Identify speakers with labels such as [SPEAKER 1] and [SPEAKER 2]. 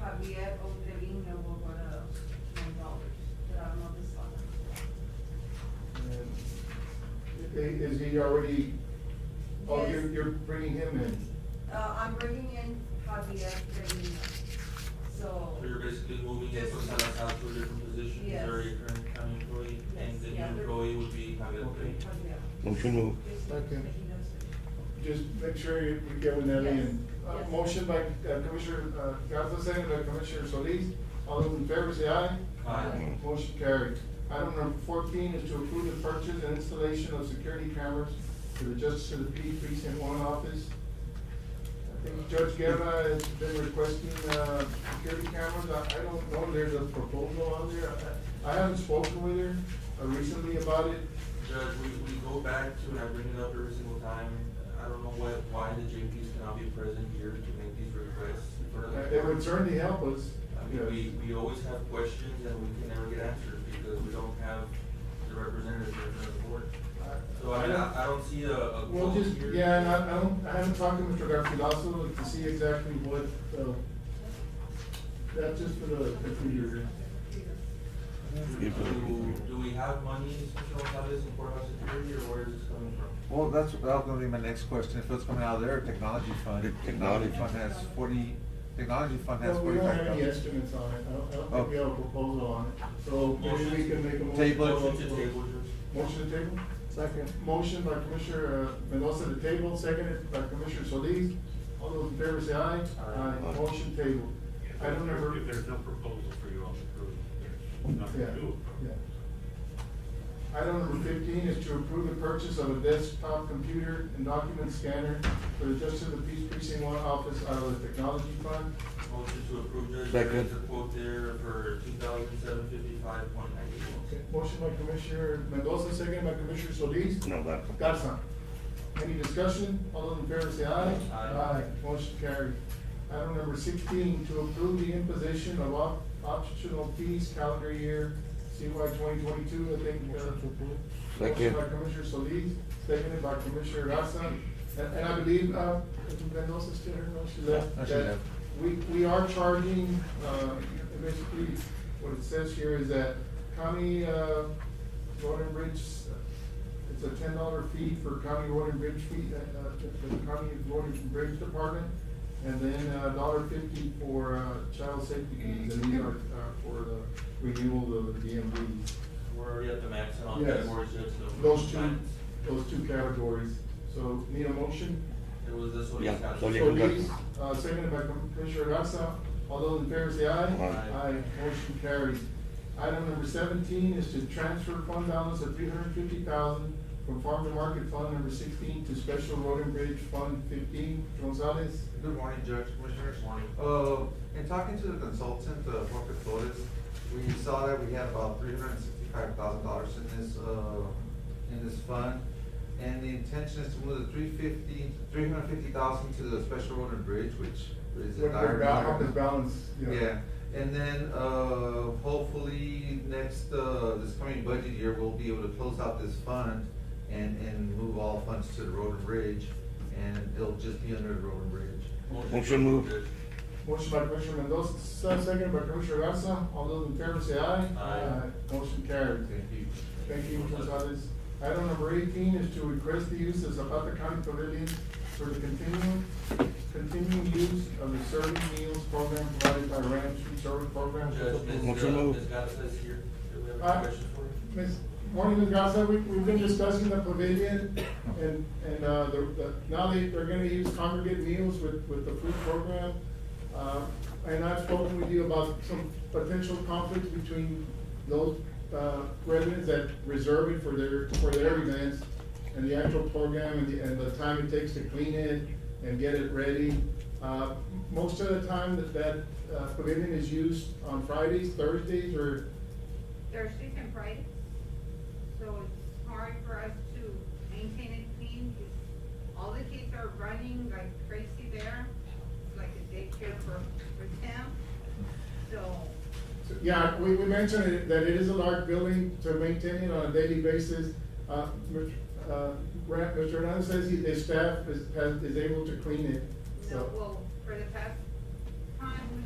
[SPEAKER 1] Lafayette o Trevino o para Montalvers, that I'm on this
[SPEAKER 2] I- Is he already, oh, you're,
[SPEAKER 1] Yes.
[SPEAKER 2] you're bringing him in?
[SPEAKER 1] Uh, I'm bringing in Javier Trevino, so.
[SPEAKER 3] So you're basically moving it from Salazar to a different position,
[SPEAKER 1] Yes.
[SPEAKER 3] you're a current county employee, and the new
[SPEAKER 1] Yes.
[SPEAKER 3] employee would be Javier Pérez.
[SPEAKER 1] Javier.
[SPEAKER 4] Motion move.
[SPEAKER 1] Just so
[SPEAKER 2] Okay.
[SPEAKER 1] that he knows it.
[SPEAKER 2] Just make sure you you get with that in.
[SPEAKER 1] Yes.
[SPEAKER 2] Uh,
[SPEAKER 1] Yes.
[SPEAKER 2] Motion by uh, Commissioner uh, Garza, second by Commissioner Solis. All those in favor say aye.
[SPEAKER 3] Aye.
[SPEAKER 2] Motion carried. Item number fourteen is to approve the purchase and installation of security cameras for the Justice of the Peace Precinct One Office. I think Judge Guerra has been requesting, uh, security cameras. I, I don't know, there's a proposal on there. I- I haven't spoken with her uh, recently about it.
[SPEAKER 3] Judge, we, we go back to, and I bring it up every single time, I don't know why, why the JPs cannot be present here to make these requests. in front of the
[SPEAKER 2] Uh, It would
[SPEAKER 3] court.
[SPEAKER 2] certainly help us.
[SPEAKER 3] I mean, we, we always have questions and we can never get answers because we don't have the representatives here from the board. So I mean, I, I don't see a, a
[SPEAKER 2] Well,
[SPEAKER 3] vote
[SPEAKER 2] just,
[SPEAKER 3] here.
[SPEAKER 2] yeah, and I, I don't, I haven't talked to Mr. Garfilaso to see exactly what, uh, that's just for the, the computer.
[SPEAKER 4] Give it-
[SPEAKER 3] Do, do we have money, Mr. Gonzalez, in courthouse security, or where is this coming from?
[SPEAKER 5] Well, that's, that was gonna be my next question, if it's coming out of their technology
[SPEAKER 4] The
[SPEAKER 5] fund, technology
[SPEAKER 4] technology.
[SPEAKER 5] fund has forty, technology fund has
[SPEAKER 2] Well, we don't
[SPEAKER 5] forty-five
[SPEAKER 2] have any
[SPEAKER 5] thousand.
[SPEAKER 2] estimates on it, I don't, I don't think we have a proposal on it, so maybe we can make a motion.
[SPEAKER 5] Oh. Table it.
[SPEAKER 3] Motion to table, Judge.
[SPEAKER 2] Motion to table?
[SPEAKER 5] Second.
[SPEAKER 2] Motion by Commissioner uh, Mendoza to table, seconded by Commissioner Solis. All those in favor say aye.
[SPEAKER 3] Aye.
[SPEAKER 2] Motion table.
[SPEAKER 6] If
[SPEAKER 2] I don't
[SPEAKER 6] there's-
[SPEAKER 2] ever.
[SPEAKER 6] If there's no proposal for you all to approve, there's nothing to do.
[SPEAKER 2] Yeah, yeah. Item number fifteen is to approve the purchase of a desktop computer and document scanner for the Justice of the Peace Precinct One office out of the technology fund.
[SPEAKER 3] Motion to approve, Judge.
[SPEAKER 4] Second.
[SPEAKER 3] There's a quote there for two thousand seven fifty-five point ninety-one.
[SPEAKER 2] Okay, Motion by Commissioner Mendoza, second by Commissioner Solis.
[SPEAKER 4] No, that.
[SPEAKER 2] Garza. Any discussion? All those in favor say aye.
[SPEAKER 3] Aye.
[SPEAKER 2] Motion carried. Item number sixteen, to approve the imposition of op- optional fees calendar year CY twenty twenty-two, I think. Motion to approve. Motion
[SPEAKER 4] Second.
[SPEAKER 2] by Commissioner Solis, seconded by Commissioner Garza. And, and I believe, uh, Commissioner Mendoza still here, no, she left.
[SPEAKER 5] No, she
[SPEAKER 2] that
[SPEAKER 5] left.
[SPEAKER 2] We, we are charging, uh, basically, what it says here is that county, uh, road and bridge, uh, it's a ten dollar fee for county road and bridge fee, uh, uh, for the county road and bridge department. And then a dollar fifty for, uh, child safety fees, and these are, uh, for the renewal of the DMVs.
[SPEAKER 3] We're already at the max and on
[SPEAKER 2] Yes.
[SPEAKER 3] categories, Judge, so.
[SPEAKER 2] Those two,
[SPEAKER 3] Mines.
[SPEAKER 2] those two categories, so need a motion?
[SPEAKER 3] It was this one.
[SPEAKER 4] Yeah,
[SPEAKER 3] Judge.
[SPEAKER 4] so you-
[SPEAKER 2] So these, uh, seconded by Commissioner Garza, all those in favor say aye.
[SPEAKER 4] Aye.
[SPEAKER 2] motion carries. Item number seventeen is to transfer fund balance of three hundred fifty thousand from farm to market fund number sixteen to special road and bridge fund fifteen. Gonzalez,
[SPEAKER 7] Good morning, Judge, Commissioners. Morning. Uh, in talking to the consultant, uh, Jorge Flores, we saw that we had about three hundred and sixty-five thousand dollars in this, uh, in this fund. And the intention is to move the three fifty, three hundred and fifty thousand to the special road and bridge, which is a
[SPEAKER 2] what their
[SPEAKER 7] dire
[SPEAKER 2] ba-
[SPEAKER 7] need.
[SPEAKER 2] the balance, yeah.
[SPEAKER 7] Yeah, and then, uh, hopefully, next, uh, this coming budget year, we'll be able to close out this fund and, and move all funds to the road and bridge, and it'll just be under the road and bridge.
[SPEAKER 3] Motion
[SPEAKER 4] Motion
[SPEAKER 3] to
[SPEAKER 4] move.
[SPEAKER 3] approve,
[SPEAKER 2] Motion by Commissioner Mendoza, second by Commissioner Garza, all those in favor say aye.
[SPEAKER 3] Aye.
[SPEAKER 2] Motion carries.
[SPEAKER 7] Thank you.
[SPEAKER 2] Thank you, Gonzalez. Item number eighteen is to request the use of Zapata County Pavilion for the continuing, continuing use of the serving meals program provided by Ranch Food Service Program.
[SPEAKER 3] Judge. Judge, Ms. uh,
[SPEAKER 4] Motion move.
[SPEAKER 3] Ms. Garza is here. Do we have
[SPEAKER 2] Aye.
[SPEAKER 3] any questions for her?
[SPEAKER 2] Ms. Morning, Ms. Garza, we, we've been discussing the pavilion and, and, uh, the, the, now they, they're gonna use congregate meals with, with the food program. Uh, and I've spoken with you about some potential conflicts between those, uh, residents that reserve it for their, for their events and the actual program and the, and the time it takes to clean it and get it ready. Uh, most of the time that, that uh, pavilion is used on Fridays, Thursdays, or
[SPEAKER 8] Thursdays and Fridays. So it's hard for us to maintain it clean. 'cause All the kids are running like crazy there. It's like a daycare for, for them. So,
[SPEAKER 2] Yeah, we, we mentioned it- that it is a large building to maintain it on a daily basis. Uh, Mr. uh, Ra- Mr. Hernandez says he- his staff is, has, is able to clean it,
[SPEAKER 8] no,
[SPEAKER 2] so.
[SPEAKER 8] well, for the past